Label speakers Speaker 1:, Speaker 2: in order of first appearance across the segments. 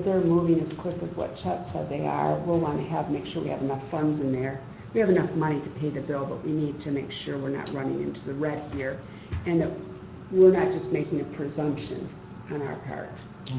Speaker 1: they're moving as quick as what Chet said they are, we'll want to have, make sure we have enough funds in there. We have enough money to pay the bill, but we need to make sure we're not running into the red here. And that we're not just making a presumption on our part.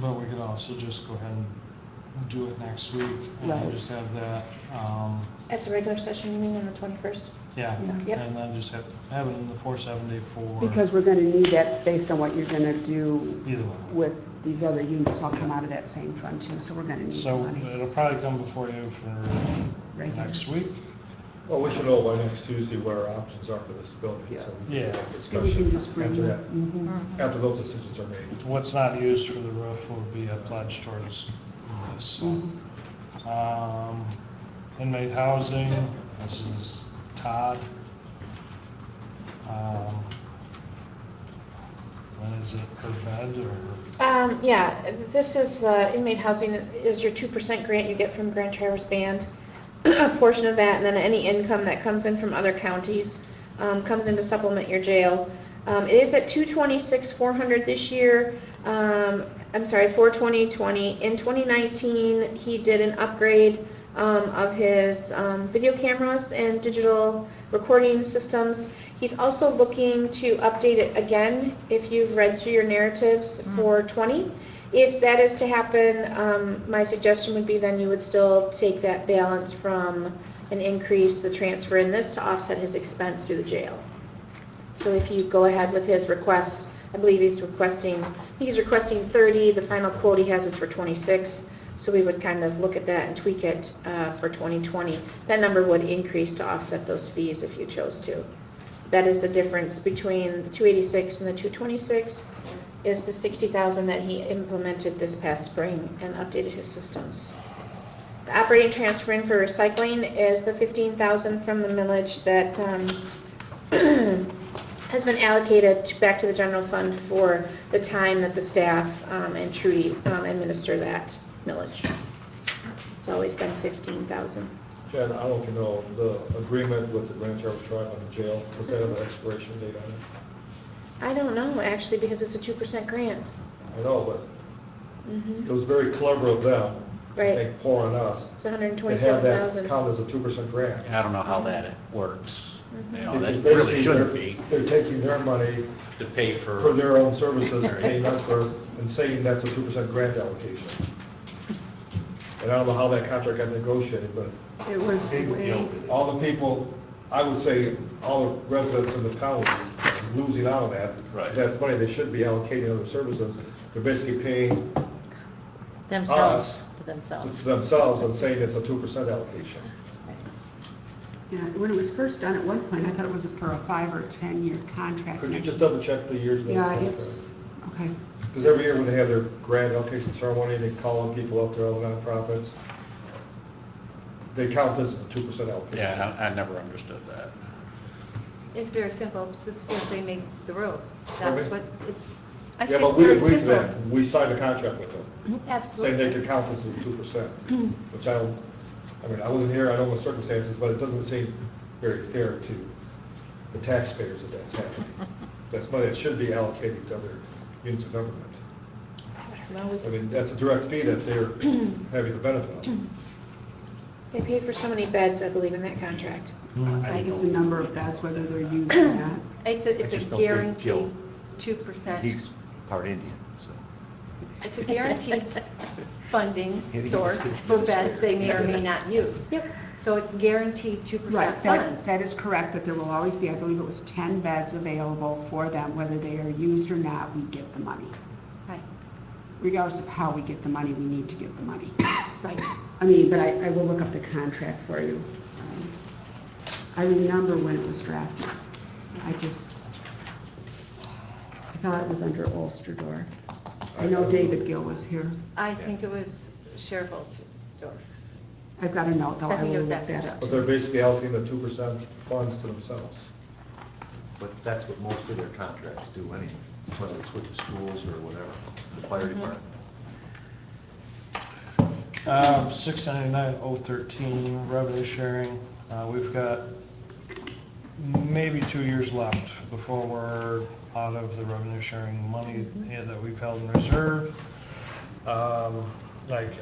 Speaker 2: But we could also just go ahead and do it next week
Speaker 1: Right.
Speaker 2: and just have that, um,
Speaker 3: At the regular session, you mean on the twenty-first?
Speaker 2: yeah.
Speaker 3: Yep.
Speaker 2: And then just have, have it in the four seventy for
Speaker 1: Because we're gonna need that based on what you're gonna do
Speaker 2: either one.
Speaker 1: with these other units, all come out of that same fund too, so we're gonna need the
Speaker 2: So
Speaker 4: uh,
Speaker 1: money.
Speaker 2: it'll probably come before you for
Speaker 1: Regular.
Speaker 2: next week.
Speaker 4: Well, we should know by next Tuesday what our options are for this building, so we
Speaker 2: Yeah.
Speaker 4: can have a
Speaker 1: And we can
Speaker 4: discussion
Speaker 1: just bring
Speaker 4: after
Speaker 1: that.
Speaker 4: that,
Speaker 1: mhm.
Speaker 4: after those decisions are made.
Speaker 2: What's not used for the roof will be a pledge towards this.
Speaker 1: Mhm.
Speaker 2: Um, inmate housing, this is Todd. Um, When is it per bed or,
Speaker 3: Um, yeah, this is the inmate housing is your two percent grant you get from Grand Traverse Band. A portion of that, and then any income that comes in from other counties, um, comes in to supplement your jail. Um, it is at two twenty-six, four hundred this year. Um, I'm sorry, four twenty, twenty. In twenty nineteen, he did an upgrade, um, of his, um, video cameras and digital recording systems. He's also looking to update it again, if you've read through your narratives for 20. If that is to happen, um, my suggestion would be then you would still take that balance from an increase, the transfer in this to offset his expense through the jail. So if you go ahead with his request, I believe he's requesting, I think he's requesting 30, the final quote he has is for 26. So we would kind of look at that and tweak it, uh, for 2020. That number would increase to offset those fees if you chose to. That is the difference between the 286 and the 226, is the 60,000 that he implemented this past spring and updated his systems. The operating transfer in for recycling is the 15,000 from the millage that um, has been allocated to- back to the general fund for the time that the staff um, and Trudy um, administer that millage. It's always been 15,000.
Speaker 4: Jen, I don't know if you know, the agreement with the Grand Traverse Tribe on the jail, does that have an expiration date on it?
Speaker 3: I don't know, actually, because it's a 2% grant.
Speaker 4: I know, but
Speaker 3: Mhm.
Speaker 4: it was very clever of them, I
Speaker 3: Right.
Speaker 4: think, poor on us,
Speaker 3: It's
Speaker 4: to have that
Speaker 3: 127,000.
Speaker 4: count as a two percent grant.
Speaker 5: And I don't know how that works. You know,
Speaker 4: Because
Speaker 5: that
Speaker 4: basically
Speaker 5: really shouldn't
Speaker 4: they're-
Speaker 5: be
Speaker 4: They're taking their money
Speaker 5: to pay for.
Speaker 4: for their own services, paying us for, and saying that's a two percent grant allocation. And I don't know how that contract got negotiated, but
Speaker 1: It was way,
Speaker 4: all the people, I would say, all the residents in the county are losing out on that.
Speaker 5: Right.
Speaker 4: That's money they should be allocating other services, they're basically paying
Speaker 6: Themselves,
Speaker 4: Us.
Speaker 6: to themselves.
Speaker 4: themselves and saying it's a two percent allocation.
Speaker 1: yeah, when it was first done at one point, I thought it was for a five or 10-year contract.
Speaker 4: Could you just double check the years? of the
Speaker 1: Yeah,
Speaker 4: contract?
Speaker 1: it's, okay.
Speaker 4: Because every year when they have their grant allocation ceremony, they call on people up there, all the nonprofits, they count this as a two percent allocation.
Speaker 5: Yeah, I, I never understood that.
Speaker 7: It's very simple, it's just because they make the rules. That's
Speaker 4: Okay.
Speaker 7: what, it- I
Speaker 4: Yeah,
Speaker 7: think
Speaker 4: but
Speaker 7: it's
Speaker 4: we
Speaker 7: very
Speaker 4: agreed to
Speaker 7: simple.
Speaker 4: that, we signed a contract with them. saying they
Speaker 7: Mhm. Absolutely.
Speaker 4: could count this as two percent, which I don't, I mean, I wasn't here, I don't know the circumstances, but it doesn't seem very fair to the taxpayers that that's happening. That's money that should be allocated to other units of government.
Speaker 3: That was-
Speaker 4: I mean, that's a direct fee that they're having the benefit of.
Speaker 3: They paid for so many beds, I believe, in that contract.
Speaker 5: I
Speaker 1: That
Speaker 5: didn't
Speaker 1: gives
Speaker 5: know
Speaker 1: the number of beds, whether they're used or not.
Speaker 7: It's a, it's
Speaker 8: just
Speaker 7: a
Speaker 8: don't think Gil-
Speaker 7: guaranteed two percent.
Speaker 8: He's part Indian, so.
Speaker 7: It's a guaranteed funding
Speaker 8: Yeah, he
Speaker 7: source
Speaker 8: just-
Speaker 7: for beds they may or may not use.
Speaker 3: Yep.
Speaker 7: So it's guaranteed two percent
Speaker 1: Right, that,
Speaker 7: funds.
Speaker 1: that is correct, that there will always be, I believe it was 10 beds available for them, whether they are used or not, we get the money.
Speaker 7: Right,
Speaker 1: Regardless of how we get the money, we need to get the money.
Speaker 7: right.
Speaker 1: I mean, but I, I will look up the contract for you. Um, I remember when it was drafted. I just, I thought it was under Ulsterdorf. I know David Gill was here.
Speaker 7: I think it was Sheriff Olstersdorf.
Speaker 1: I've got a note, though, I
Speaker 7: Something
Speaker 1: will
Speaker 7: was
Speaker 1: look
Speaker 7: after
Speaker 1: that
Speaker 7: that.
Speaker 1: up.
Speaker 4: But they're basically allocating the two percent funds to themselves.
Speaker 8: But that's what most of their contracts do anyway, whether it's with the schools or whatever, the fire department.
Speaker 2: um, six ninety-nine oh thirteen, revenue sharing, uh, we've got maybe two years left before we're out of the revenue sharing money that we've held in reserve. Um, like,